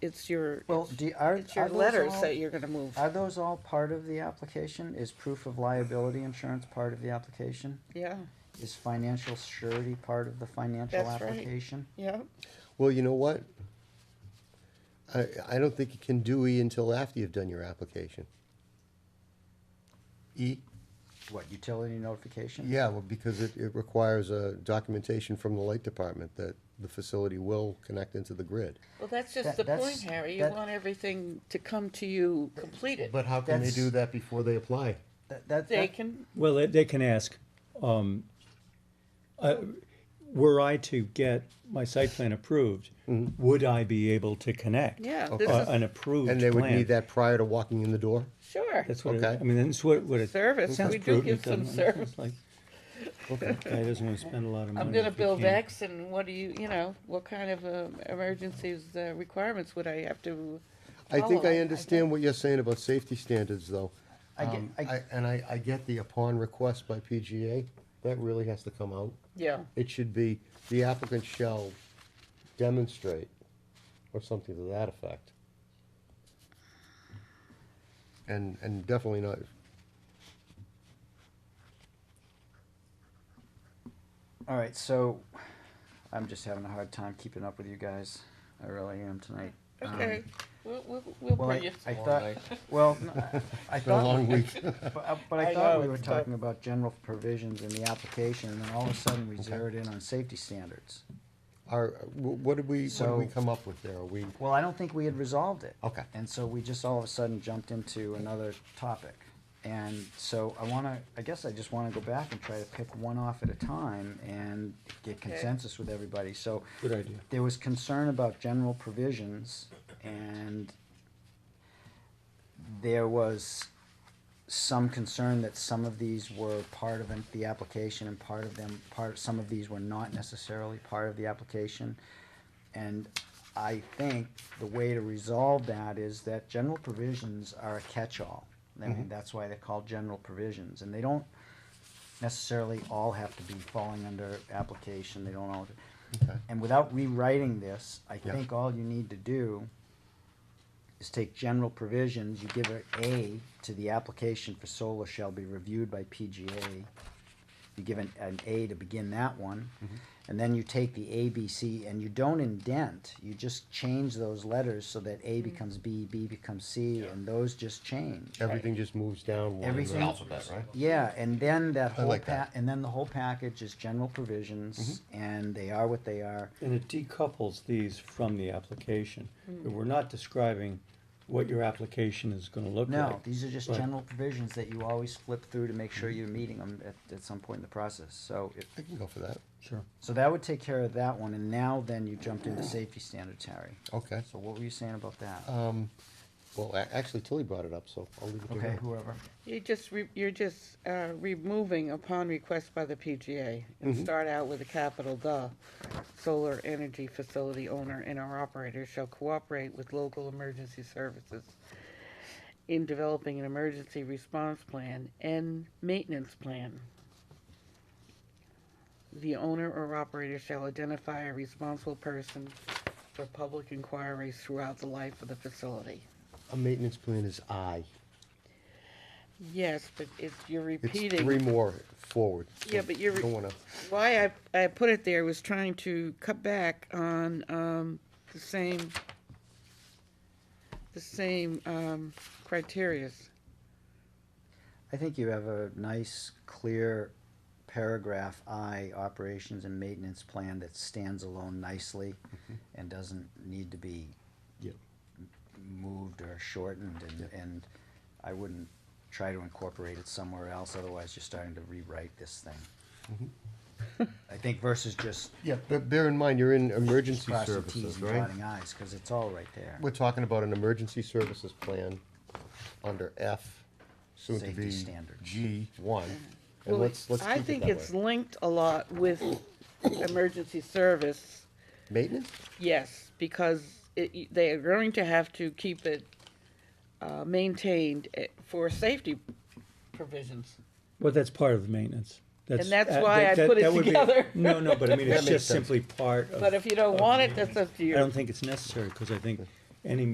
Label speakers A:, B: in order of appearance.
A: it's your,
B: Well, do, are,
A: it's your
B: are those
A: letters
B: all-
A: that you're gonna move.
B: Are those all part of the application? Is proof of liability insurance part of the application?
A: Yeah,
B: Is financial surety part of the financial
A: That's right.
B: application?
A: yeah.
C: Well, you know what? I, I don't think you can do E until after you've done your application. E?
B: What, utility notification?
C: Yeah, well, because it, it requires a documentation from the light department that the facility will connect into the grid.
A: Well, that's just
B: That-
A: the point,
B: that's-
A: Harry. You
B: that-
A: want everything to come to you completed.
C: But how
B: can they do
C: that before they apply?
B: That, that,
A: They
B: that-
A: can,
D: Well, they- they can ask, um, uh, were I to get my site plan approved, would I be able to connect?
A: Yeah,
D: a-
A: this is-
D: An approved plan?
C: Mm-hmm. And they would need that prior to walking in the door?
A: sure.
D: That's what, it-
C: Okay.
D: I mean, that's what, what it.
A: Service,
D: it sounds
A: we do give
D: prudent,
A: some
D: doesn't it?
A: service.
D: It's like, Guy doesn't wanna spend a lot of money.
A: I'm gonna
D: if he
A: build
D: can't-
A: X and what do you, you know, what kind of um, emergencies, uh, requirements would I have to?
B: Oh,
C: I think
A: follow?
C: I understand what you're saying about safety standards, though.
B: I get-
C: Um,
B: I-
C: And I, I get the upon request by PGA, that really has to come out.
A: Yeah,
C: It should be, the applicant shall demonstrate, or something to that effect. And, and definitely not,
B: all right, so I'm just having a hard time keeping up with you guys. I really am tonight. Um,
A: okay, we'll, we'll, we'll
B: Well,
A: bring
B: I,
A: you.
B: I
C: Long
B: thought,
C: night.
B: well, no, I- I
C: it's been a
B: thought,
C: long week.
B: But, I- but
A: I
B: I thought
A: know,
B: we were
A: but-
B: talking about general provisions in the application, and then all of a sudden we zeroed in on safety standards.
C: Are, wh- what did we, what did we
B: So-
C: come up with there? Are we,
B: Well, I don't think we had resolved it.
C: Okay.
B: And so we just all of a sudden jumped into another topic. And so I wanna, I guess I just wanna go back and try to pick one off at a time and get
A: Okay.
B: consensus with everybody, so.
D: Good idea.
B: There was concern about general provisions and there was some concern that some of these were part of an- the application and part of them, part, some of these were not necessarily part of the application. And I think the way to resolve that is that general provisions are a catch-all. I mean, that's why they're called general provisions, and they don't necessarily all have to be falling under application, they don't all.
C: Okay.
B: And without rewriting this, I
C: Yeah.
B: think all you need to do is take general provisions, you give it A to the application for solar shall be reviewed by PGA. You give an, an A to begin that one,
C: Mm-hmm.
B: and then you take the A, B, C, and you don't indent, you just change those letters so that A becomes B, B becomes C, and those just change.
C: everything just moves down one.
B: Everything-
C: right?
B: Alphabet, Yeah, and then that whole
C: like
B: pa-
C: that. Mm-hmm.
B: and then the whole package is general provisions, and they are what they are.
D: And it decouples these from the application.
A: Hmm.
D: We're not describing what your application is gonna look like.
B: No, these are just
D: Right.
B: general provisions that you always flip through to make sure
C: Mm-hmm.
B: you're meeting them at, at some point in the process, so it,
C: I can go for that.
D: Sure.
B: so that would take care of that one, and now then you jumped into safety standards, Harry.
C: Okay.
B: So what were you saying about that?
C: Um, well, a- actually Tilly brought it up, so I'll leave it to
B: Okay,
C: her.
B: whoever,
A: You just, re- you're just uh, removing upon request by the PGA and start out with a capital "the." Solar energy facility owner and our operator shall cooperate with local emergency services in developing an emergency response plan and maintenance plan. The owner or operator shall identify a responsible person for public inquiries throughout the life of the facility.
C: A maintenance plan is I.
A: Yes, but it's, you're repeating.
C: It's three more forward.
A: Yeah, but you're-
C: Don't wanna,
A: why I, I put it there was trying to cut back on um, the same the same um, criterias.
B: I think you have a nice, clear paragraph I, operations and maintenance plan that stands alone nicely
C: Mm-hmm.
B: and doesn't need to be
C: Yep.
B: moved or shortened, and, and I wouldn't try to incorporate it somewhere else, otherwise you're starting to rewrite this thing.
C: Mm-hmm.
B: I think versus just
C: yeah, but bear in mind, you're in emergency
B: crossing Ts
C: services,
B: and
C: right?
B: dotting Is, cause it's all right there.
C: We're talking about an emergency services plan under F, soon to
B: Safety
C: be
B: standards.
C: G one. And
A: Well,
C: let's, let's
A: I
C: keep
A: think
C: it
A: it's
C: that way.
A: linked a lot with emergency service.
C: Maintenance?
A: Yes, because it, they are going to have to keep it uh, maintained eh, for safety provisions.
D: Well, that's part of the maintenance. That's,
A: that's
D: uh,
A: why
D: that-
A: I
D: that-
A: put it
D: that would be-
A: together.
D: No, no, but I mean,
C: That
D: it's
C: makes
D: just
C: sense.
D: simply part of.
A: But if you don't
D: of
A: want
D: the
A: it, that's up to
D: I
A: you.
D: don't think it's necessary, because I think any